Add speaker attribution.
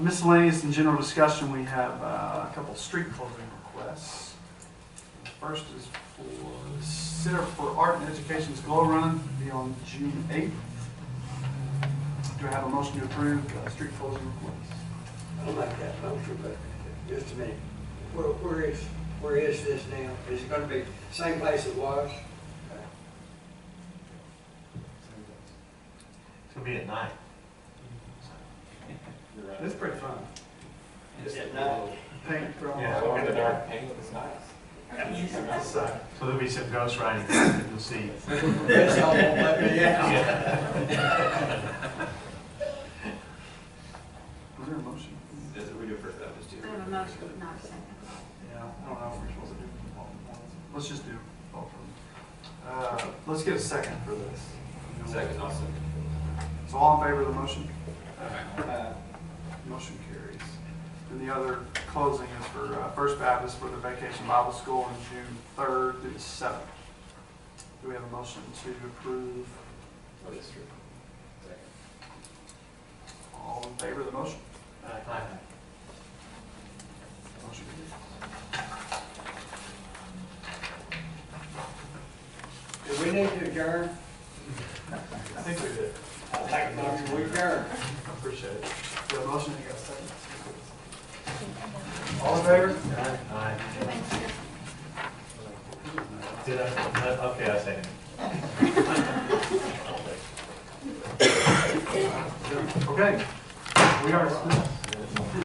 Speaker 1: Miscellaneous and general discussion, we have uh, a couple street closing requests. First is for Center for Art and Education's Glow Run, be on June 8th. Do I have a motion to approve uh, street closing requests?
Speaker 2: I'll make that motion, but just a minute. Where, where is, where is this now? Is it gonna be same place it was?
Speaker 3: It's gonna be at night.
Speaker 1: It's pretty fun.
Speaker 2: Just at night?
Speaker 1: Paint from.
Speaker 3: Yeah.
Speaker 4: Look at the dark paint, it's nice.
Speaker 3: So there'll be some ghost riding, you'll see.
Speaker 2: That's all won't let me out.
Speaker 1: Was there a motion?
Speaker 4: That's what we do for those
Speaker 5: I have a motion, not a second.
Speaker 1: Yeah, I don't know if we're supposed to do all at once. Let's just do all of them. Uh, Let's get a second for this.
Speaker 4: Second also.
Speaker 1: So all in favor of the motion?
Speaker 2: Uh,
Speaker 1: Motion carries. And the other closing is for uh, First Baptist for the Vacation Bible School on June 3rd through the 7th. Do we have a motion to approve?
Speaker 4: What is true? Second.
Speaker 1: All in favor of the motion?
Speaker 3: Aye.
Speaker 1: Motion
Speaker 2: Do we need to adjourn?
Speaker 1: carries. I think we did.
Speaker 2: I'll take the motion, we adjourn.
Speaker 1: I appreciate it. Do we have a motion? You got a second? All in favor?
Speaker 3: Aye. Did I, okay, I second.
Speaker 1: Okay. We are.